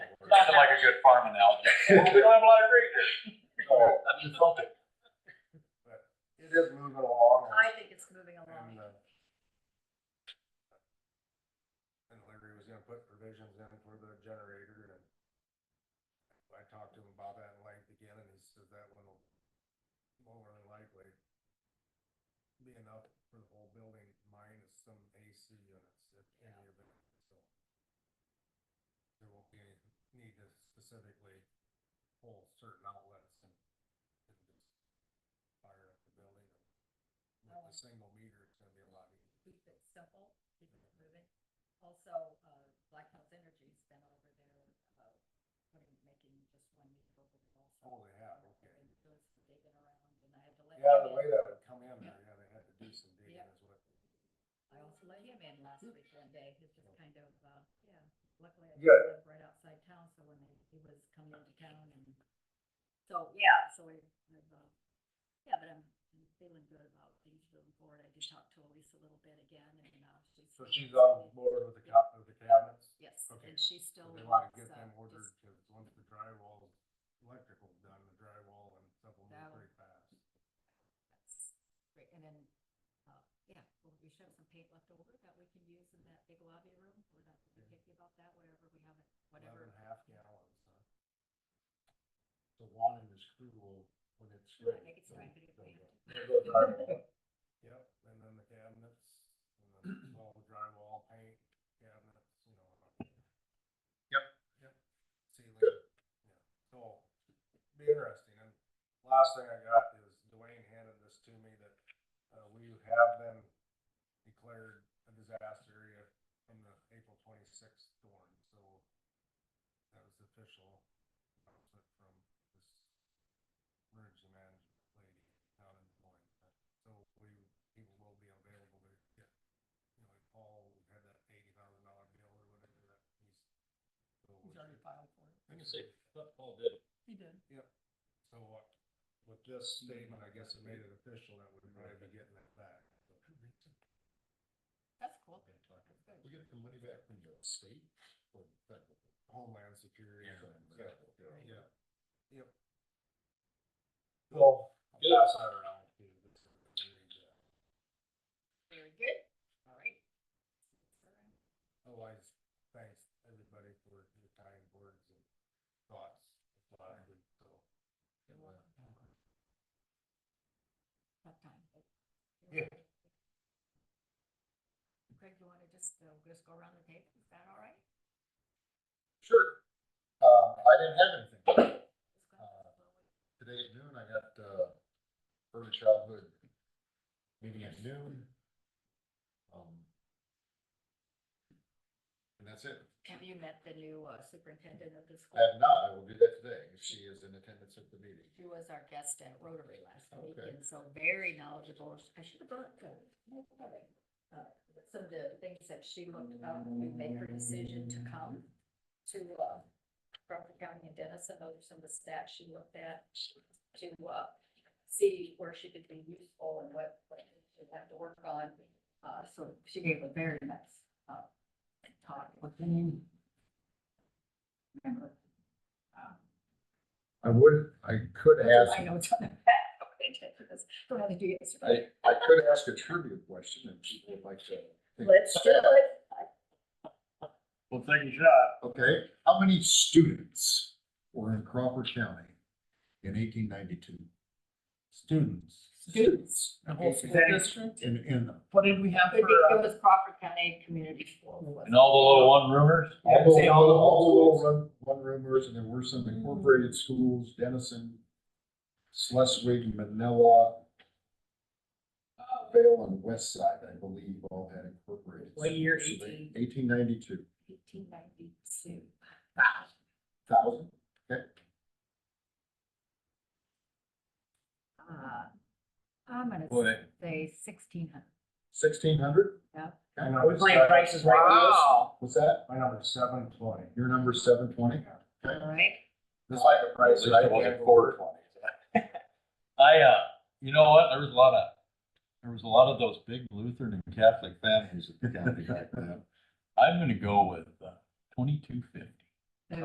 Sounded like a good farm analogy. We don't have a lot of green here. So, I mean, something. It is moving along. I think it's moving And, along. uh, And Larry was gonna put provisions in for the generator and I talked to him about that in length again and he said that one will more than likely be enough for the whole building minus some AC units, if any of it, so. There won't be any need to specifically pull certain outlets and and just fire up the building. With a single meter, it's gonna be a lot easier. Keep it simple, keep it moving. Also, uh, Black Hills Energy's been over there, uh, putting, making just one meter over there also. Oh, they have, okay. And doing some digging around, and I had to let him in. Yeah, the way that would come in there, yeah, they had to do some digging Yeah. as well. I also let him in last Hmm. week one day. He's just kind of, uh, yeah, luckily I Good. live right outside town, so when he- he was coming into town and, so, yeah, so we, I've, uh, yeah, but I'm I'm feeling good about things moving forward. I did talk to Elise a little bit again and, uh, she's. So still she's on excited. board with the cop, with the cabinets, Yes, okay. and she so still they wanna wants, get uh, them ordered, just, cause once the drywall, electrical's done, the drywall and stuff will That move one. pretty fast. that's great. And then, uh, yeah, well, we should have some paint left over that we can use in that big lobby room. We're not Yeah. picky about that, whatever we have, it, Eleven whatever. and a half gallons, huh? So Juan and his crew will, when it's Sure, ready. make it they'll- strike it if we they'll have go- they'll go drywall. Yep, and then the cabinets, and then all the drywall, paint, cabinets, you know. and all. Yep. Yep. Ceiling, yeah, so, be interesting, and last thing I got is Dwayne handed this to me that, uh, we have been declared a disaster area from the April twenty-sixth storm, so that was official announcement from this emergency management lady down in Des Moines. So we, people will be available to get, you know, like Paul had that eighty thousand dollar bill or whatever that he's. so we- filed for it. I can say, Paul did. He did. So uh, with this statement, I guess it made it official that we're gonna be getting that back. That's cool. We get the money back from the state or federal? Homeland Security. Yeah. Federal, Right. Yeah. Yep. Well, I'll Good. pass that around. to you. Very good. All right. Otherwise, thanks everybody for your kind words and thoughts. It's a lot of good, so. Tough time. but- Yeah. Craig, you wanna just, uh, just go around the table? Is that all right? Sure. Uh, I didn't have anything. Just go ahead and blow it. Today at noon, I got, uh, early childhood meeting at noon. Um. And that's it. Have you met the new uh, superintendent of the school? I have not, I will do that today if she is in attendance at the meeting. She was our guest at Rotary last week, Okay. and so very knowledgeable. I should have brought the, uh, some of the things that she looked up, we made her decision to come to, uh, Crawford County and Dennison, those are some of the stats she looked at to, uh, see where she could be useful and what, what she'd have to work on. Uh, so she gave a very nice, uh, talk. What's her name? Remember? Um, I would, I could ask, I know it's on the back. Okay, that's what I had to do yesterday. I, I could ask a trivia question if people would like to. think- Let's do it. Well, take a shot. Okay, how many students were in Crawford County in eighteen ninety-two? Students. Students. The whole school district? In, in, What did we have It for, be- it uh, was Crawford County Community School. And all the little one rumors? all the, I'd say all the- all the little one, one roomers, and there were some incorporated schools, Denison, Schleswig, Manila, Uh, Vale and West Side, I believe, all had incorporated. What year, Eighteen ninety-two, Eighteen ninety-two. thousand, Uh, I'm gonna Boy. say sixteen hundred. sixteen hundred? Yeah. My And number's playing seven- prices right now? what's that? My number's seven twenty. Your number's seven twenty? All right. That's like a At least it wasn't quarter I, uh, you know what, there was a lot of, there was a lot of those big Lutheran and Catholic families at the county back then. I'm gonna go with uh, twenty-two fifty.